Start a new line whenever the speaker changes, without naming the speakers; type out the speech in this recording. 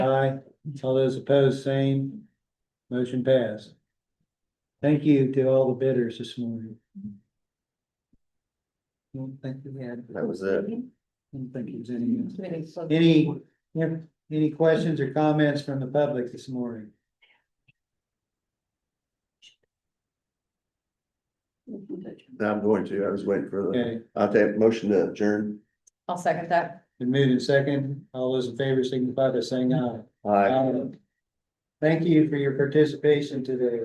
aye. All those opposed, same. Motion passed. Thank you to all the bidders this morning. Don't think we had,
That was it.
don't think it was any,
Any?
any, any questions or comments from the public this morning?
I'm going to, I was waiting for the,
Okay,
I'll take motion to adjourn.
I'll second that.
been moved in second. All those in favor signify by saying aye.
Aye.
Aye. Thank you for your participation today.